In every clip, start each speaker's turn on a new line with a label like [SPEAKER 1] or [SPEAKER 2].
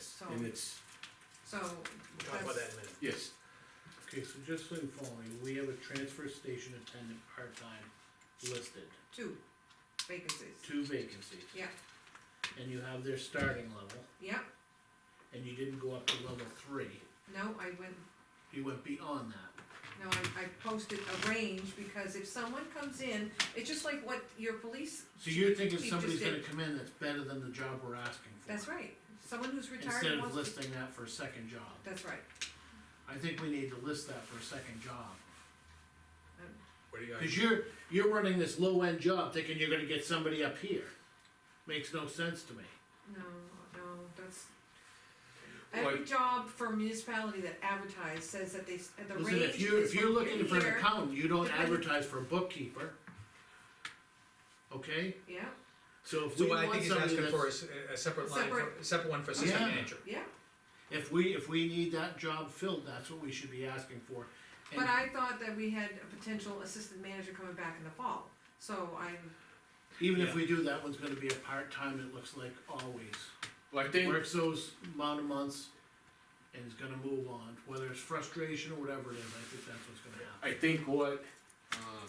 [SPEAKER 1] so,
[SPEAKER 2] and it's,
[SPEAKER 1] so.
[SPEAKER 3] We'll talk about that in a minute.
[SPEAKER 2] yes,
[SPEAKER 4] Okay, so just so you follow me, we have a transfer station attendant part-time listed,
[SPEAKER 1] that's Two vacancies,
[SPEAKER 4] two vacancies.
[SPEAKER 1] yeah,
[SPEAKER 4] And you have their starting level,
[SPEAKER 1] yeah,
[SPEAKER 4] and you didn't go up to level three,
[SPEAKER 1] no, I went,
[SPEAKER 4] you went beyond that.
[SPEAKER 1] no, I, I posted a range, because if someone comes in, it's just like what your police,
[SPEAKER 4] So you're thinking
[SPEAKER 1] You just
[SPEAKER 4] somebody's gonna
[SPEAKER 1] did.
[SPEAKER 4] come in that's better than the job we're asking for.
[SPEAKER 1] that's right, someone who's retired
[SPEAKER 4] Instead of
[SPEAKER 1] wants to-
[SPEAKER 4] listing that for a second job.
[SPEAKER 1] That's right,
[SPEAKER 4] I think we need to list that for a second job.
[SPEAKER 3] What do you
[SPEAKER 4] Cause
[SPEAKER 3] guys,
[SPEAKER 4] you're, you're running this low-end job thinking you're gonna get somebody up here. Makes no sense to me.
[SPEAKER 1] no, no, that's. Every job for municipality that advertise says that they, s- the range is from
[SPEAKER 4] Listen, if you, if you're looking for an
[SPEAKER 1] here-
[SPEAKER 4] accountant, you don't
[SPEAKER 1] depending-
[SPEAKER 4] advertise for a bookkeeper. Okay,
[SPEAKER 1] Yeah,
[SPEAKER 4] so if
[SPEAKER 3] so
[SPEAKER 4] we
[SPEAKER 3] what I
[SPEAKER 4] want
[SPEAKER 3] think he's asking
[SPEAKER 4] somebody
[SPEAKER 3] for
[SPEAKER 4] that's,
[SPEAKER 3] is a- a separate line, for-
[SPEAKER 1] Separate.
[SPEAKER 3] separate one for assistant
[SPEAKER 4] Yeah.
[SPEAKER 3] manager.
[SPEAKER 1] yeah,
[SPEAKER 4] if we, if we need that job filled, that's what we should be asking for.
[SPEAKER 1] but
[SPEAKER 4] And
[SPEAKER 1] I thought that we had a potential assistant manager coming back in the fall, so I'm,
[SPEAKER 4] even if
[SPEAKER 3] Yeah.
[SPEAKER 4] we do, that one's gonna be a part-time, it looks like always.
[SPEAKER 2] well, I think,
[SPEAKER 4] Works those amount of months and is gonna move on, whether it's frustration or whatever it is, I think that's what's gonna happen.
[SPEAKER 2] I think what, um,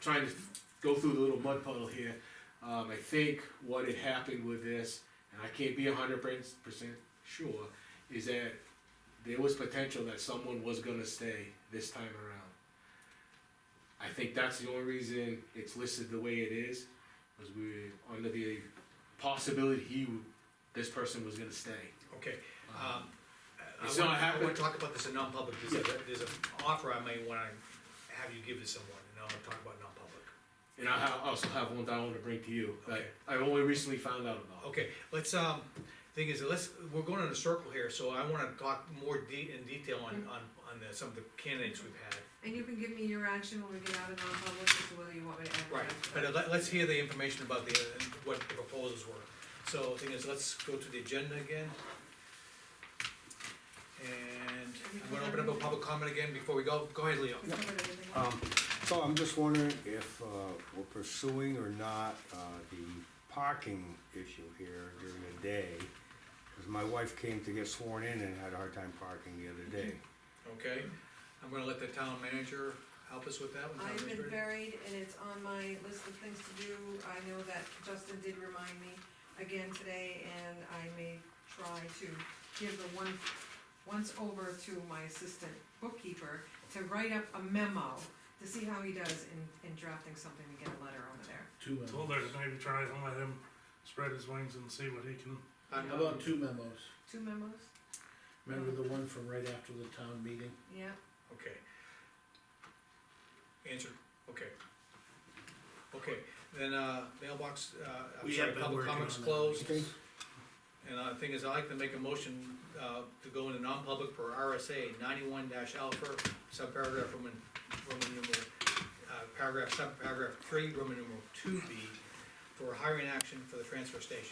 [SPEAKER 2] trying to go through the little mud puddle here, um, I think what had happened with this, and I can't be a hundred percent sure, is that there was potential that someone was gonna stay this time around. I think that's the only reason it's listed the way it is, was we, were under the possibility he, w- this person was gonna stay.
[SPEAKER 3] Okay,
[SPEAKER 2] Um,
[SPEAKER 3] um, I- I
[SPEAKER 2] It's
[SPEAKER 3] wanna,
[SPEAKER 2] not
[SPEAKER 3] I wanna
[SPEAKER 2] happening.
[SPEAKER 3] talk about this in non-public, there's a, there's an offer I may wanna have you give to someone, and I'll talk about non-public.
[SPEAKER 2] And I ha- also have one that I want to bring to you that
[SPEAKER 3] Okay.
[SPEAKER 2] I only recently found out about.
[SPEAKER 3] Okay, let's, um, thing is, let's, we're going in a circle here, so I wanna talk more de- in detail on, on, on the, some of the candidates we've had.
[SPEAKER 1] and you can give me your action when we get out of non-public, as to whether you want me to advertise. or not.
[SPEAKER 3] Right, but uh, let, let's hear the information about the, what the proposals were. So the thing is, let's go to the agenda again. And I'm gonna open up a public comment again before we go, go ahead, Leo.
[SPEAKER 1] We covered everything.
[SPEAKER 5] Um, so I'm just wondering if, uh, we're pursuing or not, uh, the parking issue here during the day. Cause my wife came to get sworn in and had a hard time parking the other day.
[SPEAKER 3] Okay, I'm gonna let the town manager help us with that one. town
[SPEAKER 1] I've been
[SPEAKER 3] administrator.
[SPEAKER 1] buried and it's on my list of things to do, I know that Justin did remind me again today, and I may try to give the one, once over to my assistant bookkeeper to write up a memo, to see how he does in, in drafting something to get a letter over there.
[SPEAKER 4] Two
[SPEAKER 6] Told
[SPEAKER 4] memos,
[SPEAKER 6] her to maybe try and let him spread his wings and see what he can.
[SPEAKER 3] Uh,
[SPEAKER 4] how about two memos?
[SPEAKER 1] Two memos?
[SPEAKER 4] Remember the one from right after the town meeting?
[SPEAKER 1] Yeah,
[SPEAKER 3] Okay. Answer, okay. Okay, then, uh, mailbox, uh, I'm
[SPEAKER 4] We
[SPEAKER 3] sorry,
[SPEAKER 4] have been
[SPEAKER 3] public
[SPEAKER 4] working
[SPEAKER 3] comments
[SPEAKER 4] on that.
[SPEAKER 3] closed.
[SPEAKER 5] Okay.
[SPEAKER 3] And uh, the thing is, I'd like to make a motion, uh, to go into non-public per RSA ninety-one dash alpha, subparagraph Roman, Roman numeral, uh, paragraph, subparagraph three, Roman numeral two B, for hiring action for the transfer station.